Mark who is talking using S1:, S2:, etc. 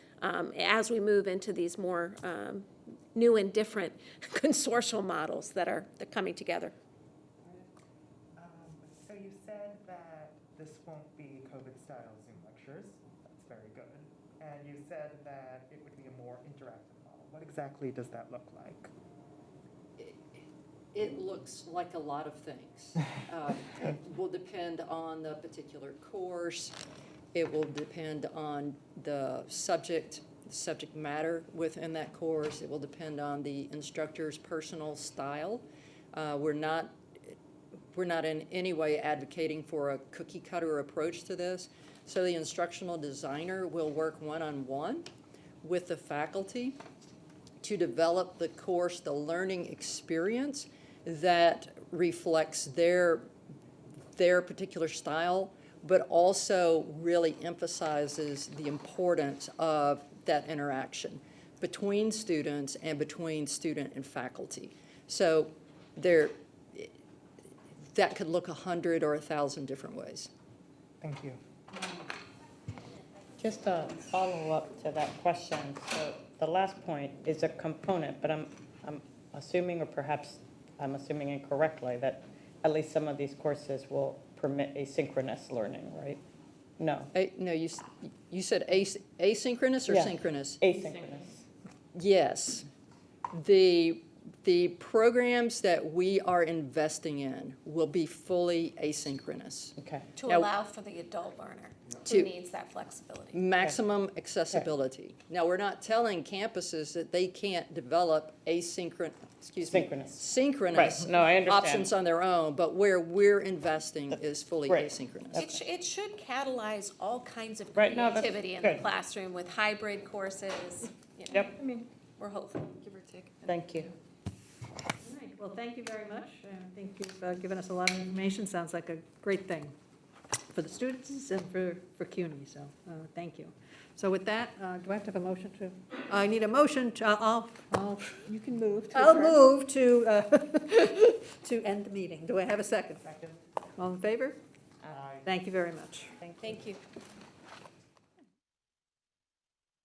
S1: um, as we move into these more um, new and different consortial models that are, that are coming together.
S2: Um, So you said that this won't be COVID-style Zoom lectures. That's very good. And you said that it would be a more interactive model. What exactly does that look like?
S3: it- It looks like a lot of things. Um, Will depend on the particular course. It will depend on the subject, subject matter within that course. It will depend on the instructor's personal style. Uh, We're not, we're not in any way advocating for a cookie cutter approach to this. So the instructional designer will work one-on-one with the faculty to develop the course, the learning experience that reflects their, their particular style, but also really emphasizes the importance of that interaction between students and between student and faculty. So there, that could look a hundred or a thousand different ways.
S2: Thank you.
S4: Just a follow-up to that question. So the last point is a component, but I'm, I'm assuming, or perhaps I'm assuming incorrectly, that at least some of these courses will permit asynchronous learning, right? No,
S3: A- no, you, s- you said as- asynchronous or
S4: Yeah.
S3: synchronous?
S4: asynchronous.
S3: Yes. The, the programs that we are investing in will be fully asynchronous.
S4: Okay.
S5: To
S3: Now-
S5: allow for the adult learner
S3: To-
S5: who needs that flexibility.
S3: Maximum accessibility. Now, we're not telling campuses that they can't develop asynchronous, excuse me.
S4: Synchronous.
S3: Synchronous.
S4: Right. No, I understand.
S3: Options on their own, but where we're investing is fully
S4: Right.
S3: asynchronous.
S5: It, sh- it should catalyze all kinds of
S4: Right, no, that's
S5: creativity in the
S4: good.
S5: classroom with hybrid courses. you know.
S4: Yep.
S6: I mean,
S5: We're hopeful.
S6: give or take.
S4: Thank you.
S6: All right, well, thank you very much. I think you've uh, given us a lot of information. Sounds like a great thing for the students and for, for CUNY, so, uh, thank you. So with that, uh, do I have to have a motion to, I need a motion to, I'll, I'll. You can move. I'll move to, uh, to end the meeting. Do I have a second? Second. All in favor?
S2: Aye.
S6: Thank you very much.
S5: Thank you.